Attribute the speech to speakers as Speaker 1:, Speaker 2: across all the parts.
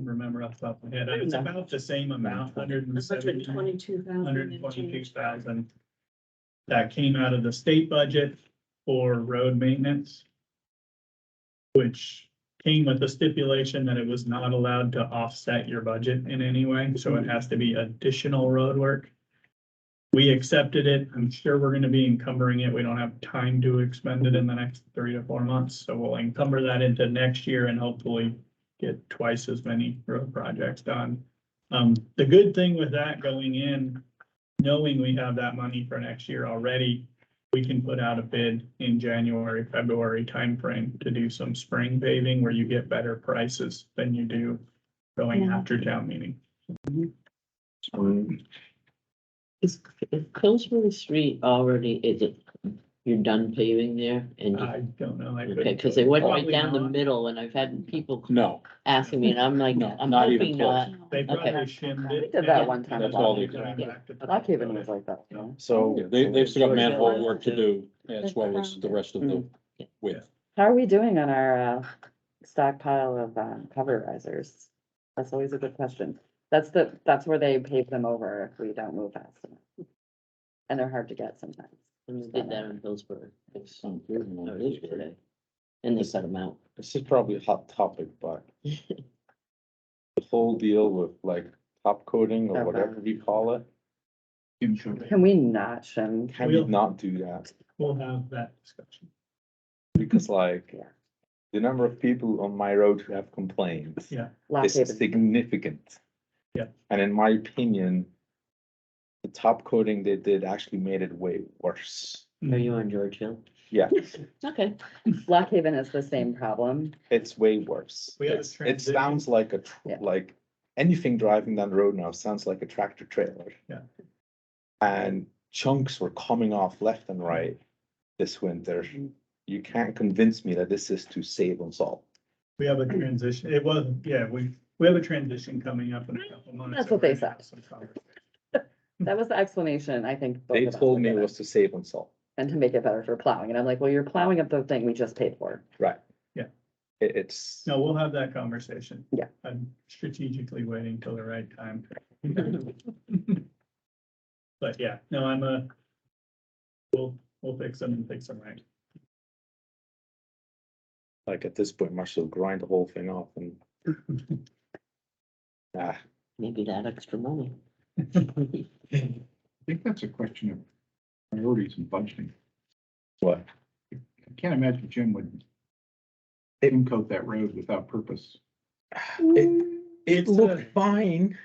Speaker 1: remember off the top of my head. It's about the same amount, hundred and
Speaker 2: hundred
Speaker 1: seventy,
Speaker 2: twenty-two thousand.
Speaker 1: hundred and twenty-two thousand. That came out of the state budget for road maintenance. Which came with the stipulation that it was not allowed to offset your budget in any way, so it has to be additional road work. We accepted it. I'm sure we're gonna be encumbering it. We don't have time to expend it in the next three to four months, so we'll encumber that into next year and hopefully get twice as many road projects done. Um, the good thing with that going in, knowing we have that money for next year already, we can put out a bid in January, February timeframe to do some spring paving where you get better prices than you do going
Speaker 2: Yeah.
Speaker 1: after town meeting.
Speaker 3: Um, Is, is Pillsbury Street already, is it, you're done paving there? And, you-
Speaker 1: I don't know. I
Speaker 3: okay,
Speaker 1: couldn't-
Speaker 3: cause they went right
Speaker 1: Probably
Speaker 3: down the
Speaker 1: not.
Speaker 3: middle and I've had people
Speaker 4: No,
Speaker 3: asking me and I'm like,
Speaker 4: No,
Speaker 3: I'm
Speaker 4: not even
Speaker 3: hoping
Speaker 4: close.
Speaker 3: not.
Speaker 1: They probably shimmed it.
Speaker 5: We did that one time.
Speaker 4: That's all they-
Speaker 5: Lock Haven was like that, you know?
Speaker 6: Oh,
Speaker 4: so they, they've still got manhole work to do as well as the rest of the
Speaker 6: Hmm.
Speaker 4: width.
Speaker 5: How are we doing on our uh, stockpile of um, cover risers? That's always a good question. That's the, that's where they pave them over if we don't move fast enough. And they're hard to get sometimes.
Speaker 3: And they did that in Pillsbury. Oh, It's- no, it is today. And they cut them out.
Speaker 6: This is probably a hot topic, but the whole deal with like top coating or
Speaker 5: Okay.
Speaker 6: whatever we call it,
Speaker 5: Can we not shim?
Speaker 6: can we
Speaker 1: We'll-
Speaker 6: not do that?
Speaker 1: We'll have that discussion.
Speaker 6: Because like,
Speaker 5: Yeah.
Speaker 6: the number of people on my road who have complaints
Speaker 1: Yeah.
Speaker 5: Lock
Speaker 6: is
Speaker 5: Haven?
Speaker 6: significant.
Speaker 1: Yeah.
Speaker 6: And in my opinion, the top coating they did actually made it way worse.
Speaker 3: Are you on George Hill?
Speaker 6: Yeah,
Speaker 3: Okay.
Speaker 5: Lock Haven is the same problem.
Speaker 6: it's way worse.
Speaker 1: We have a
Speaker 6: It's- It
Speaker 1: transition.
Speaker 6: sounds like a, tr-
Speaker 5: Yeah.
Speaker 6: like, anything driving down the road now sounds like a tractor trailer.
Speaker 1: Yeah.
Speaker 6: And chunks were coming off left and right this winter. You can't convince me that this is to save on salt.
Speaker 1: We have a transition. It was, yeah, we, we have a transition coming up in a couple months.
Speaker 5: That's what they said.
Speaker 1: said.
Speaker 5: That was the explanation, I think. both
Speaker 6: They
Speaker 5: of us
Speaker 6: told
Speaker 5: were
Speaker 6: me it
Speaker 5: given,
Speaker 6: was to save on salt.
Speaker 5: And to make it better for plowing. And I'm like, well, you're plowing up the thing we just paid for.
Speaker 6: Right.
Speaker 1: Yeah.
Speaker 6: It, it's,
Speaker 1: No, we'll have that conversation.
Speaker 5: Yeah.
Speaker 1: I'm strategically waiting till the right time. But yeah, no, I'm a, we'll, we'll fix them and fix them right.
Speaker 6: like, at this point, Marshall grind the whole thing off and. Ah,
Speaker 3: Maybe that extra money.
Speaker 7: I think that's a question of priorities and budgeting.
Speaker 6: what?
Speaker 7: I can't imagine Jim would even coat that road without purpose.
Speaker 6: It, it
Speaker 1: It's a-
Speaker 6: looked fine.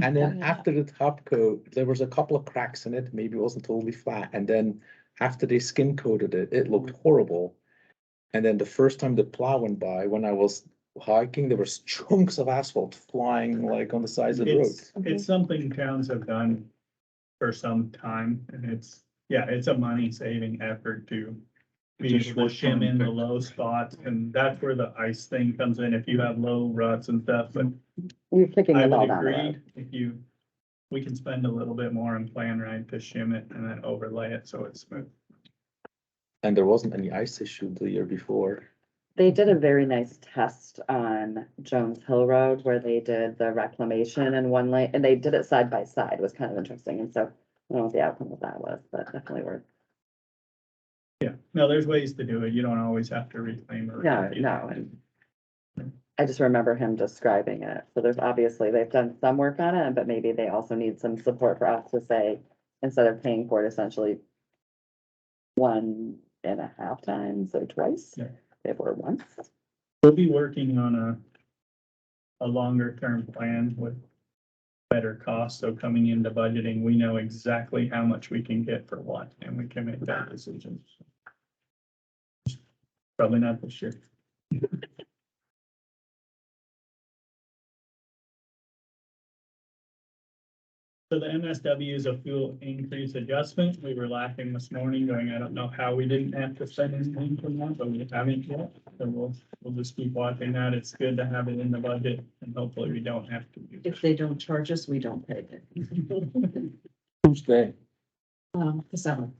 Speaker 6: And then
Speaker 3: Yeah.
Speaker 6: after the top coat, there was a couple of cracks in it, maybe it wasn't totally flat, and then after they skin coated it, it looked horrible. And then the first time the plow went by, when I was hiking, there was chunks of asphalt flying like on the sides of the road.
Speaker 1: It's, it's something towns have done for some time and it's, yeah, it's a money saving effort to be
Speaker 7: It's a
Speaker 1: able to shim
Speaker 7: short-term
Speaker 1: in the
Speaker 7: fix.
Speaker 1: low spots and that's where the ice thing comes in if you have low ruts and stuff, but
Speaker 5: You're kicking
Speaker 1: I
Speaker 5: it all
Speaker 1: would
Speaker 5: down the road.
Speaker 1: agree, if you, we can spend a little bit more on plan right to shim it and then overlay it so it's smooth.
Speaker 6: And there wasn't any ice issue the year before.
Speaker 5: They did a very nice test on Jones Hill Road where they did the reclamation in one lane, and they did it side by side, was kind of interesting, and so. I don't know what the outcome of that was, but definitely worth,
Speaker 1: Yeah, no, there's ways to do it. You don't always have to reclaim or.
Speaker 5: no, no, and. I just remember him describing it, so there's obviously, they've done some work on it, but maybe they also need some support for us to say, instead of paying for it essentially. One and a half times or twice,
Speaker 1: Yeah.
Speaker 5: if we're once,
Speaker 1: We'll be working on a, a longer term plan with better costs. So coming into budgeting, we know exactly how much we can get for what and we can make that decision. Probably not this year. So the MSW is a fuel increase adjustment. We were laughing this morning going, I don't know how we didn't have to send anything from that, but we haven't yet. So we'll, we'll just keep watching that. It's good to have it in the budget and hopefully we don't have to. do
Speaker 2: If they don't charge us, we don't pay it.
Speaker 4: Who's they?
Speaker 2: Um, the seven.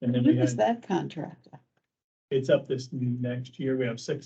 Speaker 1: And then we
Speaker 8: Who is
Speaker 1: had,
Speaker 8: that contractor?
Speaker 1: it's up this next year. We have six